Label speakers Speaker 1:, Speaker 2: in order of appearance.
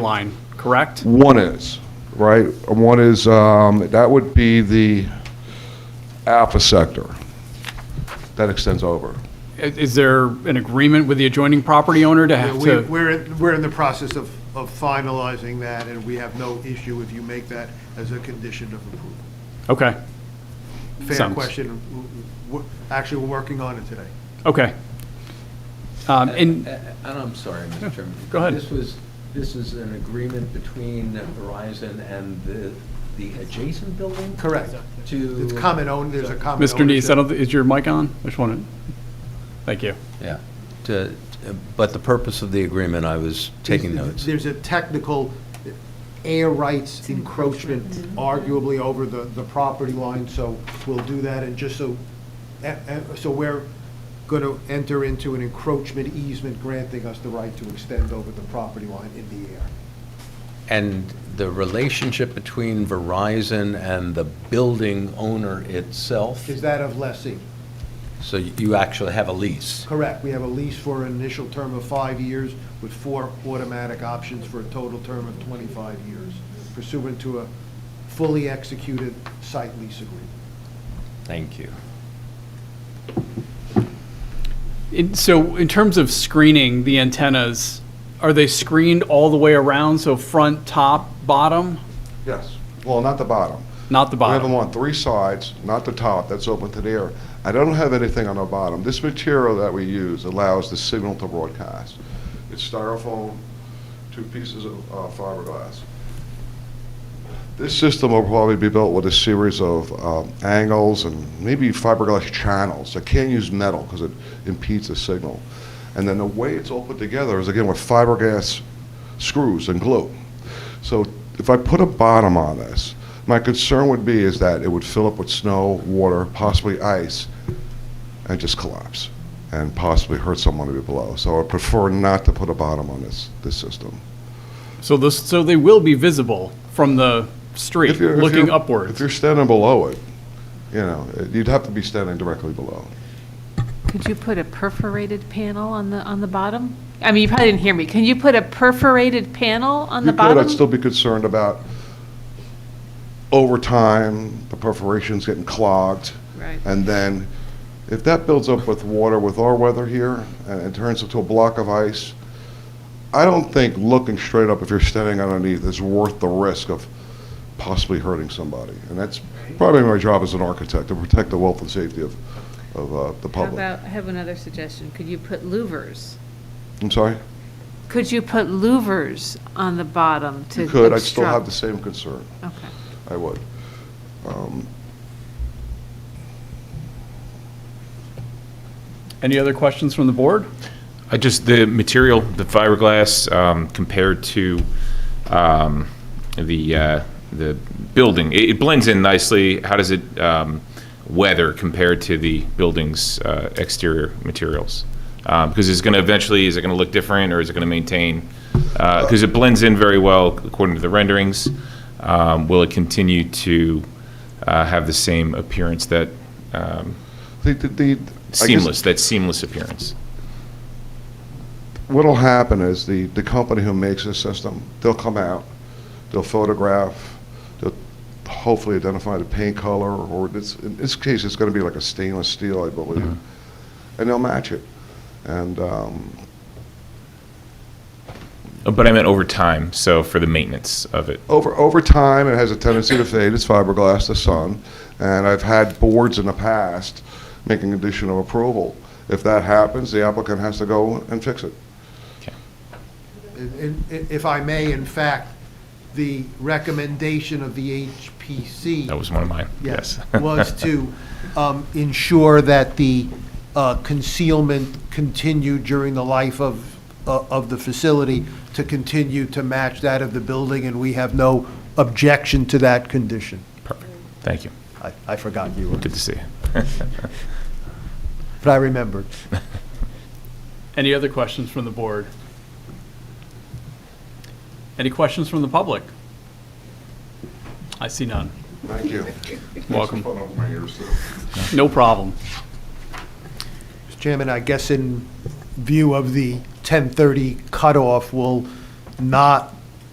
Speaker 1: line, correct?
Speaker 2: One is, right? One is, um, that would be the alpha sector that extends over.
Speaker 1: I- Is there an agreement with the adjoining property owner to
Speaker 3: Yeah,
Speaker 1: have
Speaker 3: we-
Speaker 1: to?
Speaker 3: We're, we're in the process of, of finalizing that, and we have no issue if you make that as a condition of approval.
Speaker 1: Okay,
Speaker 3: Fair
Speaker 1: Sounds-
Speaker 3: question. W- w- Actually, we're working on it today.
Speaker 1: okay. Um, And,
Speaker 4: I- I- Uh, I'm sorry, Mr. Chairman.
Speaker 1: go ahead.
Speaker 4: This was, this is an agreement between Verizon and the, the adjacent building?
Speaker 3: Correct.
Speaker 4: To.
Speaker 3: It's common owned, there's a common.
Speaker 1: Mr. Neese, I
Speaker 3: ownership.
Speaker 1: don't thi- is your mic on? I just want to, thank you.
Speaker 5: Yeah, To- uh, but the purpose of the agreement, I was taking notes.
Speaker 3: There's a technical air rights encroachment arguably over the, the property line, so we'll do that, and just so, eh, eh, so we're going to enter into an encroachment easement granting us the right to extend over the property line in the air.
Speaker 5: And the relationship between Verizon and the building owner itself,
Speaker 3: Is that of lessee?
Speaker 5: so you actually have a lease.
Speaker 3: Correct. We have a lease for an initial term of five years with four automatic options for a total term of 25 years pursuant to a fully executed site lease agreement.
Speaker 5: Thank you.
Speaker 1: In- So in terms of screening the antennas, are they screened all the way around, so front, top, bottom?
Speaker 2: Yes. Well, not the bottom.
Speaker 1: Not the
Speaker 2: We have them
Speaker 1: bottom?
Speaker 2: on three sides, not the top, that's open to the air. I don't have anything on the bottom. This material that we use allows the signal to broadcast. It's styrofoam, two pieces of uh, fiberglass. This system will probably be built with a series of um, angles and maybe fiberglass channels. I can't use metal because it impedes the signal. And then the way it's all put together is again with fiberglass screws and glue. So if I put a bottom on this, my concern would be is that it would fill up with snow, water, possibly ice, and just collapse, and possibly hurt someone to be below. So I prefer not to put a bottom on this, this system.
Speaker 1: So this, so they will be visible from the street,
Speaker 2: If you're- if
Speaker 1: looking
Speaker 2: you're- If
Speaker 1: upwards?
Speaker 2: you're standing below it, you know, it- you'd have to be standing directly below.
Speaker 6: Could you put a perforated panel on the, on the bottom? I mean, you probably didn't hear me. Can you put a perforated panel on the
Speaker 2: You could,
Speaker 6: bottom?
Speaker 2: I'd still be concerned about over time, the perforations getting clogged,
Speaker 6: Right.
Speaker 2: And then, if that builds up with water, with our weather here, and it turns into a block of ice, I don't think looking straight up if you're standing underneath is worth the risk of possibly hurting somebody. And that's probably my job as an architect, to protect the wealth and safety of, of uh, the
Speaker 7: How
Speaker 2: public.
Speaker 7: about, I have another suggestion. Could you put louvers?
Speaker 2: I'm sorry?
Speaker 6: Could you put louvers on the bottom to
Speaker 2: You
Speaker 6: obstruct?
Speaker 2: could, I'd still have the same concern.
Speaker 6: Okay.
Speaker 2: I would. Um,
Speaker 1: Any other questions from the board?
Speaker 8: I just, the material, the fiberglass um, compared to um, the, uh, the building, it it blends in nicely. How does it um, weather compared to the building's uh, exterior materials? Uh, Because it's going to eventually, is it going to look different or is it going to maintain? Because it blends in very well according to the renderings. Um, Will it continue to uh, have the same appearance that um,
Speaker 2: the- the- the- I guess-
Speaker 8: seamless, that seamless appearance?
Speaker 2: what'll happen is the, the company who makes this system, they'll come out, they'll photograph, they'll hopefully identify the paint color, or this, in this case, it's gonna be like a stainless steel, I believe, and they'll match it. And, um,
Speaker 8: Uh, But I meant over time, so for the maintenance of it.
Speaker 2: over, over time, it has a tendency to fade, it's fiberglass, the sun, and I've had boards in the past making additional approval. If that happens, the applicant has to go and fix it.
Speaker 3: And- and If I may, in fact, the recommendation of the HPC.
Speaker 8: That was one of mine, yes.
Speaker 3: Was to um, ensure that the uh, concealment continued during the life of, uh, of the facility to continue to match that of the building, and we have no objection to that condition.
Speaker 8: Perfect. Thank you.
Speaker 3: I- I forgot you were,
Speaker 8: Good to see you.
Speaker 3: but I remembered.
Speaker 1: Any other questions from the board? Any questions from the public? I see none.
Speaker 2: Thank you.
Speaker 1: Welcome.
Speaker 2: Put on my ears, too.
Speaker 1: No problem.
Speaker 3: Mr. Chairman, I guess in view of the 10:30 cutoff, we'll not